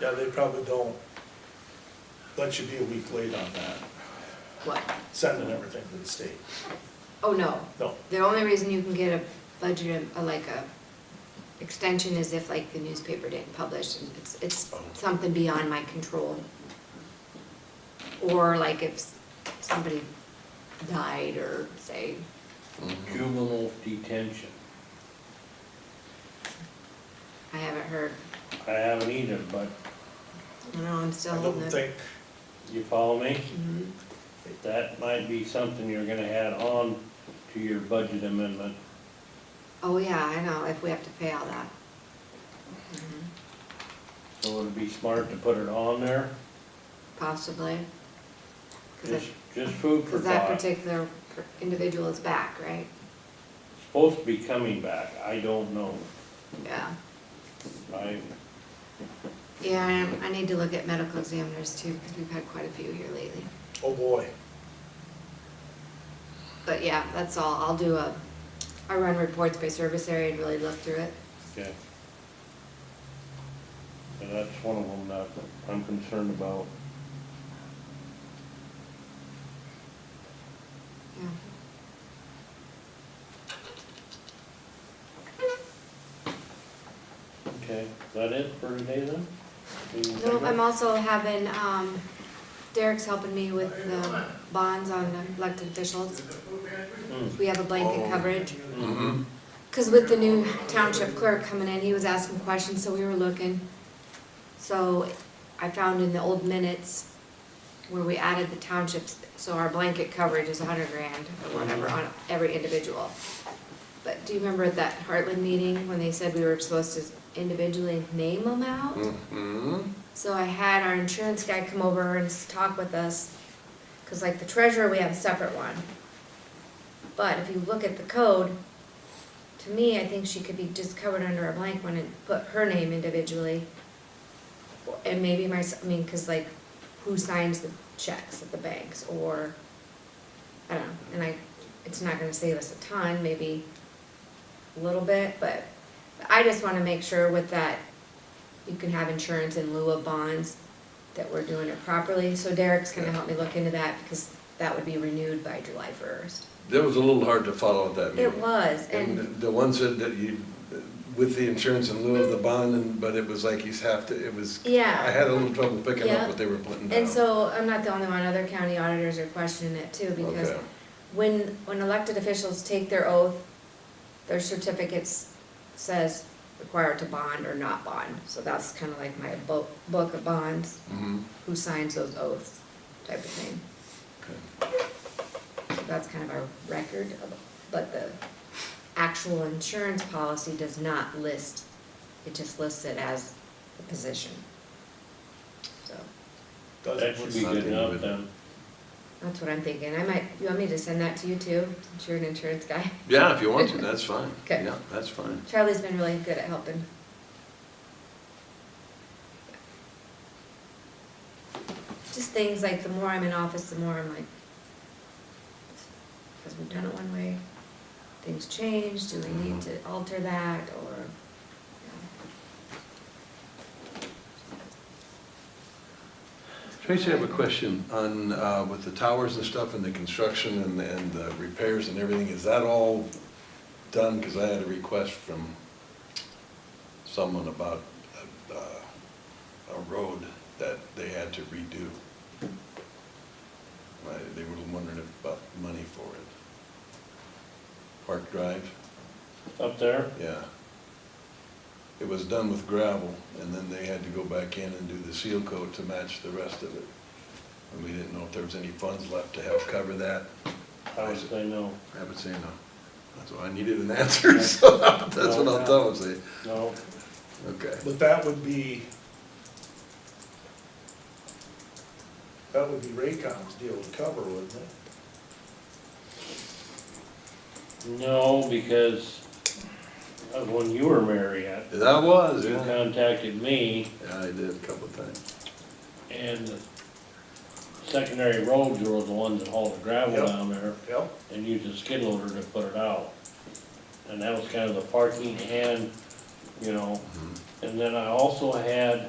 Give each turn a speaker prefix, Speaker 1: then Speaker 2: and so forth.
Speaker 1: Yeah, they probably don't let you be a week late on that,
Speaker 2: What?
Speaker 1: sending everything to the state.
Speaker 2: Oh, no.
Speaker 1: No,
Speaker 2: The only reason you can get a budget, uh, like a extension is if like the newspaper didn't publish and it's, it's
Speaker 1: Oh.
Speaker 2: something beyond my control. Or like if s- somebody died or say,
Speaker 3: Juvenile detention.
Speaker 2: I haven't heard,
Speaker 3: I haven't either, but
Speaker 2: I don't know, I'm still
Speaker 1: I
Speaker 2: holding
Speaker 1: don't
Speaker 2: it.
Speaker 1: think,
Speaker 3: you follow me?
Speaker 2: Mhm.
Speaker 3: That might be something you're gonna add on to your budget amendment.
Speaker 2: Oh, yeah, I know, if we have to pay all that. Mhm.
Speaker 3: So it'd be smart to put it on there.
Speaker 2: Possibly. Cause
Speaker 3: Just,
Speaker 2: if-
Speaker 3: just food for
Speaker 2: cause that
Speaker 3: thought.
Speaker 2: particular per- individual is back, right?
Speaker 3: Supposed to be coming back. I don't know.
Speaker 2: Yeah.
Speaker 3: I,
Speaker 2: Yeah, I- I need to look at medical examiners too, because we've had quite a few here lately.
Speaker 1: oh boy,
Speaker 2: But yeah, that's all, I'll do a, I run reports by service area and really look through it.
Speaker 3: okay. And that's one of them that I'm concerned about.
Speaker 2: Yeah.
Speaker 3: Okay, is that it for today then? Anything
Speaker 2: No,
Speaker 3: bigger?
Speaker 2: I'm also having, um, Derek's helping me with the bonds on elected officials.
Speaker 3: Hmm.
Speaker 2: We have a blanket coverage.
Speaker 4: Mm-hmm.
Speaker 3: Mhm.
Speaker 2: Cause with the new township clerk coming in, he was asking questions, so we were looking. So I found in the old minutes where we added the townships, so our blanket coverage is a hundred grand or whatever on every individual. But do you remember at that Heartland meeting when they said we were supposed to individually name them out? So I had our insurance guy come over and s- talk with us, cause like the treasurer, we have a separate one. But if you look at the code, to me, I think she could be just covered under a blank one and put her name individually. And maybe my, s- I mean, cause like, who signs the checks at the banks or, I don't know, and I, it's not gonna save us a ton, maybe a little bit, but I just wanna make sure with that you can have insurance in lieu of bonds, that we're doing it properly. So Derek's gonna help me look into that, because that would be renewed by July first.
Speaker 4: That was a little hard to follow at that meeting.
Speaker 2: It was,
Speaker 4: And
Speaker 2: and,
Speaker 4: the- the one said that you, with the insurance in lieu of the bond, and, but it was like he's have to, it was, I
Speaker 2: yeah,
Speaker 4: had a little trouble picking
Speaker 2: Yeah.
Speaker 4: up what they were putting down.
Speaker 2: and so I'm not the only one, other county auditors are questioning it too, because
Speaker 4: Okay.
Speaker 2: when, when elected officials take their oath, their certificates says required to bond or not bond, so that's kinda like my book, book of bonds,
Speaker 4: Mhm.
Speaker 2: who signs those oaths type of thing.
Speaker 4: Okay.
Speaker 2: So that's kind of our record, of- but the actual insurance policy does not list, it just lists it as a position. So,
Speaker 3: That
Speaker 1: doesn't look
Speaker 3: should be good
Speaker 4: Something
Speaker 3: enough
Speaker 4: with-
Speaker 3: then.
Speaker 2: that's what I'm thinking, I might, you want me to send that to you too, since you're an insurance guy?
Speaker 4: Yeah, if you want to, that's fine.
Speaker 2: Okay.
Speaker 4: Yeah, that's fine.
Speaker 2: Charlie's been really good at helping. Just things like the more I'm in office, the more I'm like, because we've done it one way, things change, do we need to alter that, or?
Speaker 4: Tracy, I have a question on, uh, with the towers and stuff and the construction and, and the repairs and everything, is that all done? Because I had a request from someone about, uh, a road that they had to redo. Uh, They were wondering if- about money for it. Park Drive?
Speaker 3: Up there?
Speaker 4: Yeah. It was done with gravel, and then they had to go back in and do the seal coat to match the rest of it. And we didn't know if there was any funds left to help cover that.
Speaker 3: I would say no.
Speaker 4: I would say no. That's why I needed an answer, so that's what I'll tell them, say,
Speaker 3: No,
Speaker 4: okay.
Speaker 1: But that would be, that would be Raycom's deal to cover, wouldn't it?
Speaker 3: no, because of when you were Marriott,
Speaker 4: That was,
Speaker 3: you
Speaker 4: yeah.
Speaker 3: contacted me
Speaker 4: Yeah, I did a couple of times.
Speaker 3: and the secondary roads were the ones that hauled the gravel
Speaker 1: Yep.
Speaker 3: down there
Speaker 1: Yep.
Speaker 3: and used a skid loader to put it out. And that was kind of the parking and, you know, and then I also had